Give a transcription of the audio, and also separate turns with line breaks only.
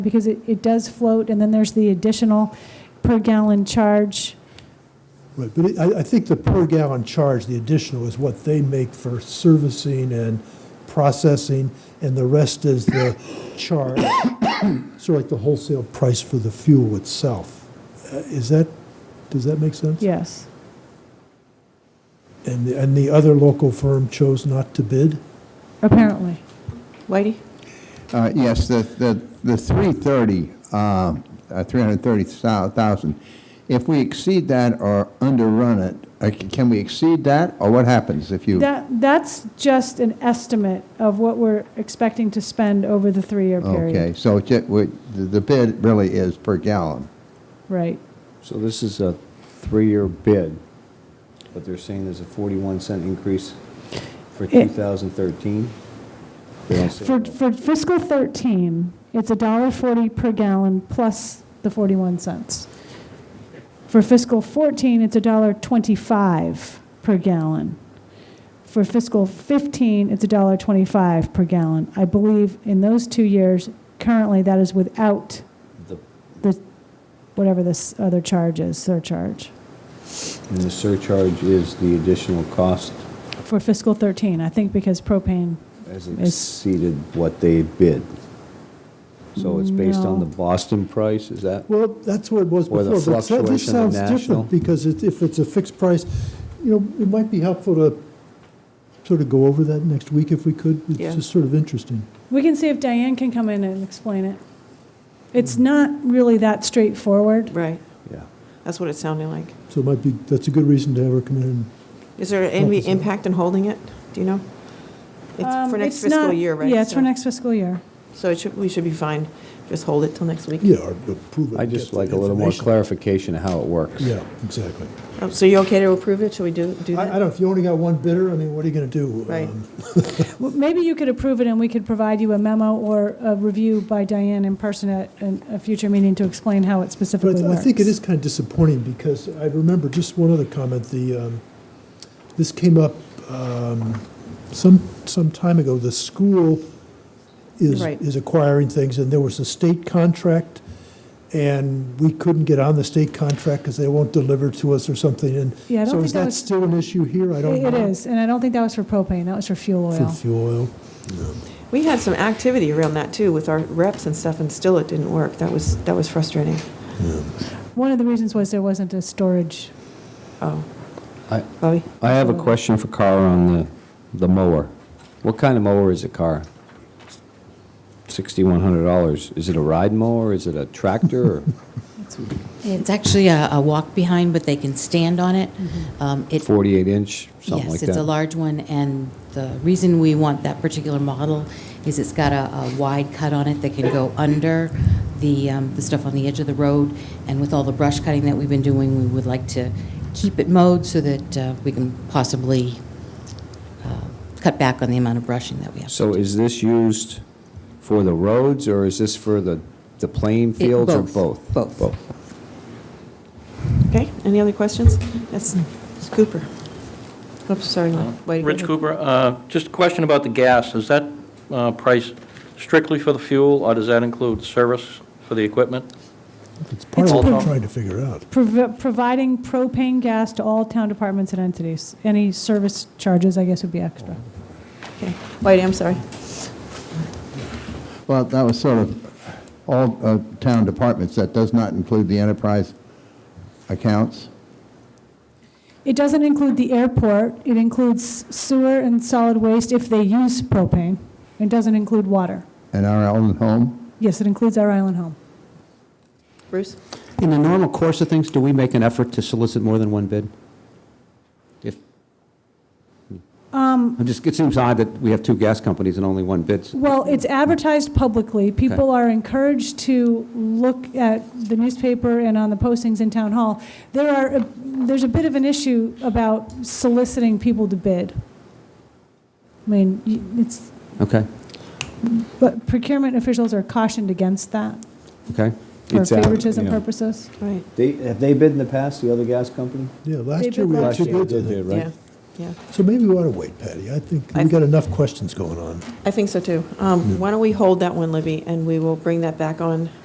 because it, it does float, and then there's the additional per gallon charge.
Right, but it- I, I think the per gallon charge, the additional, is what they make for servicing and processing, and the rest is the charge, sort of like the wholesale price for the fuel itself. Uh, Is that, does that make sense?
Yes.
And, the- and the other local firm chose not to bid?
Apparently.
Whitey?
Uh, Yes, the, the, the 330, uh, uh, 330,000, if we exceed that or underrun it, uh, c- can we exceed that, or what happens if you?
That, that's just an estimate of what we're expecting to spend over the three-year period.
Okay, so it ju- we- the the bid really is per gallon.
Right.
So this is a three-year bid, but they're saying there's a 41 cent increase for
It-
2013? They don't say
For,
that.
for fiscal 13, it's $1.40 per gallon plus the 41 cents. For fiscal 14, it's $1.25 per gallon. For fiscal 15, it's $1.25 per gallon. I believe in those two years, currently, that is without
The-
the, whatever this other charge is, surcharge,
And the surcharge is the additional cost
for fiscal 13, I think because propane,
has
It's-
exceeded what they bid. So it's based on
No.
the Boston price, is that?
Well, that's what it was
Or
before.
the
but that- this
fluctuation of
sounds
national.
different Because it- if it's a fixed price, you know, it might be helpful to sort of go over that next week if we could.
Yeah.
It's just sort of interesting.
we can see if Diane can come in and explain it. It's not really that straightforward.
Right,
Yeah.
that's what it sounded like.
So it might be, that's a good reason to have her come in and
Is there any
Focus on-
impact in holding it? Do you know?
Um,
It's for next
it's
fiscal
not-
year, right?
Yeah, it's for
So-
next fiscal year.
So it should, we should be fine. Just hold it till next week.
Yeah, or approve it.
I
and
just
get
like
the
a little more
information.
clarification of how it works.
Yeah, exactly.
Oh, So you okay to approve it? Should we do, do
I, I
that?
don't, know if you only got one bidder, I mean, what are you going to do?
Right.
Um,
Well, Maybe you could approve it, and we could provide you a memo or a review by Diane in person at an- a future meeting to explain how it
But I
specifically
th- I
works.
think it is kind of disappointing because I remember just one other comment, the, um, this came up um, some, some time ago. The school is,
Right.
is acquiring things and there was a state contract and we couldn't get on the state contract because they won't deliver to us or something. And
Yeah, I don't
so
think
is
that
that
was-
still an issue here? I don't know.
It is, and I don't think that was for propane, that was for fuel
For
oil.
fuel oil.
We had some activity around that too with our reps and stuff and still it didn't work. That was, that was frustrating.
One of the reasons was there wasn't a storage.
Oh,
I,
Bobby?
I have a question for Carl on the, the mower. What kind of mower is it, Carl? Sixty-one hundred dollars. Is it a ride mower? Is it a tractor? or-
It's actually a, a walk behind, but they can stand on it. Um, it
48 inch, something like
yes,
that?
it's a large one, and the reason we want that particular model is it's got a, a wide cut on it that can go under the um, the stuff on the edge of the road, and with all the brush cutting that we've been doing, we would like to keep it mowed so that uh, we can possibly uh, cut back on the amount of brushing that we have.
So is this used for the roads, or is this for the, the playing
It-
fields, or
both,
both?
both.
Okay, any other questions? That's it's Cooper. Oops, sorry, Whitey.
Rich Cooper, uh, just a question about the gas. Is that uh, price strictly for the fuel, or does that include service for the equipment?
It's part of
It's
what we're
all-
trying to figure out.
Prov- Providing propane gas to all town departments and entities. Any service charges, I guess, would be extra.
Okay. Whitey, I'm sorry.
Well, that was sort of all uh, town departments, that does not include the enterprise accounts?
It doesn't include the airport, it includes sewer and solid waste if they use propane. It doesn't include water.
And our own home?
Yes, it includes our island home.
Bruce?
In the normal course of things, do we make an effort to solicit more than one bid? If,
Um.
I'm just, it seems odd that we have two gas companies and only one bids.
Well, it's advertised publicly. People are encouraged to look at the newspaper and on the postings in town hall. There are, a- there's a bit of an issue about soliciting people to bid. I mean, y- it's,
Okay,
but procurement officials are cautioned against that
okay.
for
It's, uh,
favoritism
yeah.
purposes.
All right.
They, have they bid in the past, the other gas company?
Yeah, last
David
year we
Lodge.
actually
Last year
did
they
that.
did, right?
Yeah, yeah.
So maybe we ought to wait, Patty. I think
I-
we've got enough questions going on.
I think so, too. Um, Why don't we hold that one, Libby, and we will bring that back on